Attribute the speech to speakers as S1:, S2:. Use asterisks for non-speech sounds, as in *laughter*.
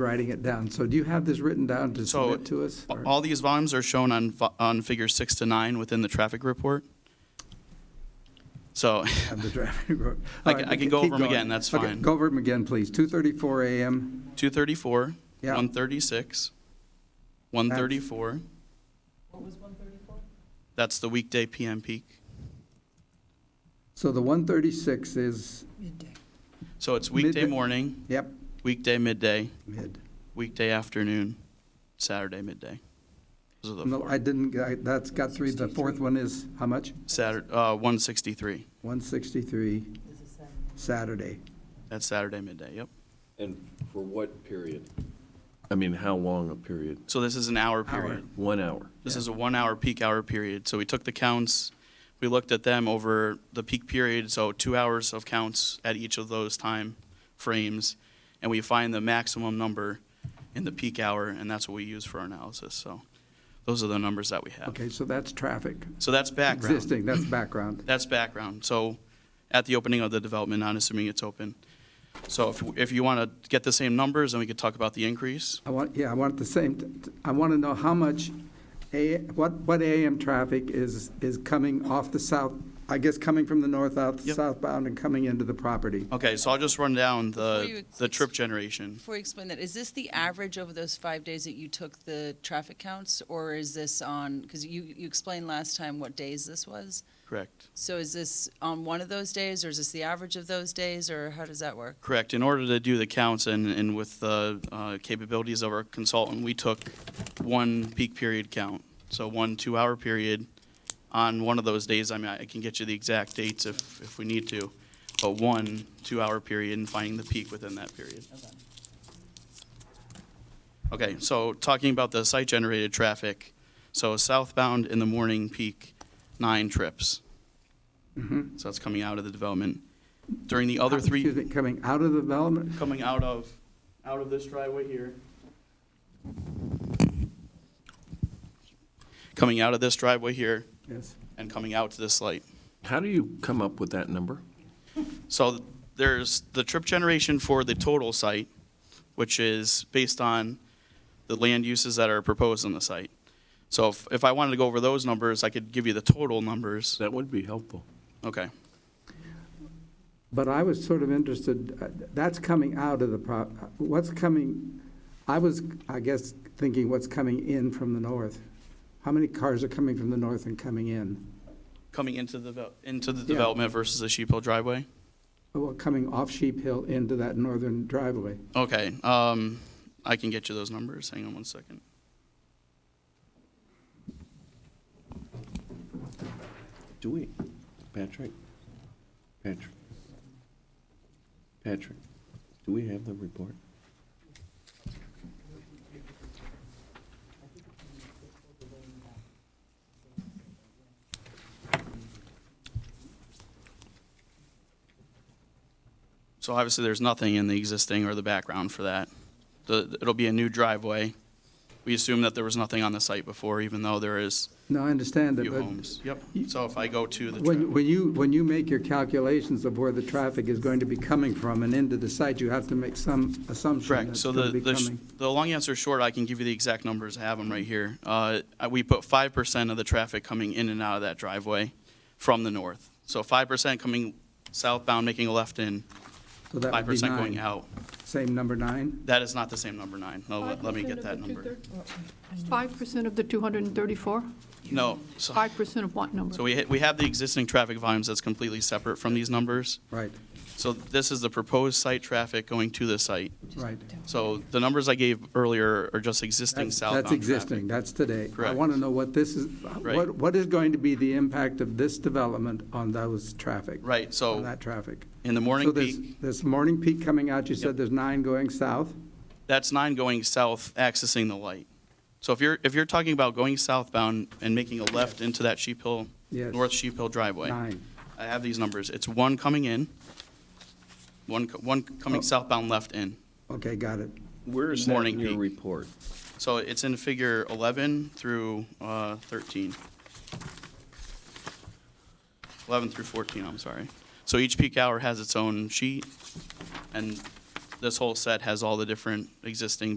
S1: writing it down. So do you have this written down to
S2: So-
S1: submit to us? or-
S2: All these volumes are shown on, fi- on figure six to nine within the traffic report. So, *laughs*
S1: Have the *laughs* traffic report.
S2: I
S1: All
S2: can-
S1: right,
S2: I can
S1: okay,
S2: go
S1: keep
S2: over 'em
S1: going.
S2: again, that's
S1: Okay,
S2: fine.
S1: Go over them again, please. 2:34 a.m.
S2: two thirty-four,
S1: Yeah.
S2: one thirty-six, one thirty-four. What was one thirty-four? That's the weekday PM peak.
S1: So the 136 is,
S2: So it's weekday
S1: Midday.
S2: morning,
S1: yep,
S2: weekday midday,
S1: mid.
S2: weekday afternoon, Saturday midday. Those are the
S1: No, I
S2: four.
S1: didn't, I- that's got three. The fourth one is, how much?
S2: Saturday, uh, one sixty-three.
S1: 163 Saturday.
S2: That's Saturday midday, yep.
S3: And for what period? I mean, how long a period?
S2: So this is an hour period.
S3: One hour.
S2: This is a one-hour peak hour period. So we took the counts, we looked at them over the peak period, so two hours of counts at each of those time frames, and we find the maximum number in the peak hour, and that's what we use for our analysis. So those are the numbers that we have.
S1: Okay, so that's traffic.
S2: So that's background.
S1: Existing, that's background.
S2: That's background. So at the opening of the development, not assuming it's open. So if, if you want to get the same numbers, then we could talk about the increase.
S1: I want, yeah, I want the same, t- t- I want to know how much, A- what, what AM traffic is, is coming off the south, I guess coming from the north out,
S2: Yep.
S1: southbound and coming into the property?
S2: Okay, so I'll just run down
S4: Before
S2: the,
S4: you-
S2: the trip generation.
S4: Before you explain that, is this the average over those five days that you took the traffic counts? Or is this on, because you, you explained last time what days this was?
S2: Correct.
S4: So is this on one of those days, or is this the average of those days, or how does that work?
S2: Correct. In order to do the counts and, and with the uh, capabilities of our consultant, we took one peak period count. So one two-hour period on one of those days. I mean, I can get you the exact dates if, if we need to. But one two-hour period and finding the peak within that period. Okay, so talking about the site-generated traffic. So southbound in the morning peak, nine trips. So that's coming out of the development. During the other three
S1: Excuse me, coming out of the development?
S2: coming out of, out of this driveway here. Coming out of this driveway here
S1: Yes.
S2: and coming out to this light.
S3: How do you come up with that number?
S2: So there's the trip generation for the total site, which is based on the land uses that are proposed on the site. So if, if I wanted to go over those numbers, I could give you the total numbers.
S3: That would be helpful.
S2: Okay.
S1: But I was sort of interested, uh, that's coming out of the prop, what's coming, I was, I guess, thinking what's coming in from the north. How many cars are coming from the north and coming in?
S2: Coming into the, devel- into the
S1: Yeah.
S2: development versus the Sheep Hill driveway.
S1: Well, coming off Sheep Hill into that northern driveway.
S2: Okay, um, I can get you those numbers. Hang on one second.
S3: Do we? Patrick? Patrick? Patrick, do we have the report?
S2: So obviously, there's nothing in the existing or the background for that. The, it'll be a new driveway. We assume that there was nothing on the site before, even though there is
S1: No, I
S2: a
S1: understand it,
S2: few
S1: but
S2: homes. Yep. So if I go to the,
S1: when,
S2: tra-
S1: when you, when you make your calculations of where the traffic is going to be coming from and into the site, you have to make some assumption that
S2: correct.
S1: it's
S2: So
S1: going
S2: the,
S1: to be
S2: the, sh-
S1: coming.
S2: the long answer short, I can give you the exact numbers. I have them right here. Uh, I- we put five percent of the traffic coming in and out of that driveway from the north. So five percent coming southbound, making a left in,
S1: So that
S2: five
S1: would be
S2: percent going
S1: nine.
S2: out.
S1: Same number nine?
S2: That is not the same number nine. No, let, let me get that number.
S5: Five percent of the two hundred and thirty-four?
S2: No. So
S5: Five percent of what number?
S2: So we, ha- we have the existing traffic volumes that's completely separate from these numbers.
S1: Right,
S2: So this is the proposed site traffic going to the site.
S1: right.
S2: So the numbers I gave earlier are just existing
S1: That's
S2: southbound
S1: that's
S2: traffic.
S1: existing, that's today. I
S2: Correct.
S1: want to know what this is, what, what is going to be the impact of this development on those traffic?
S2: Right,
S1: On
S2: so
S1: that traffic.
S2: in the
S1: So
S2: morning
S1: there's,
S2: peak,
S1: there's morning peak coming out, you
S2: Yep.
S1: said there's nine going south?
S2: that's nine going south accessing the light. So if you're, if you're talking about going southbound and making a left into that Sheep Hill,
S1: Yes.
S2: North Sheep Hill driveway.
S1: Nine.
S2: I have these numbers. It's one coming in, one, co- one coming
S1: Oh.
S2: southbound left in.
S1: Okay, got it.
S3: Where
S2: is that in Morning your peak.
S3: report?
S2: So it's in figure 11 through uh, 13. 11 through 14, I'm sorry. So each peak hour has its own sheet, and this whole set has all the different existing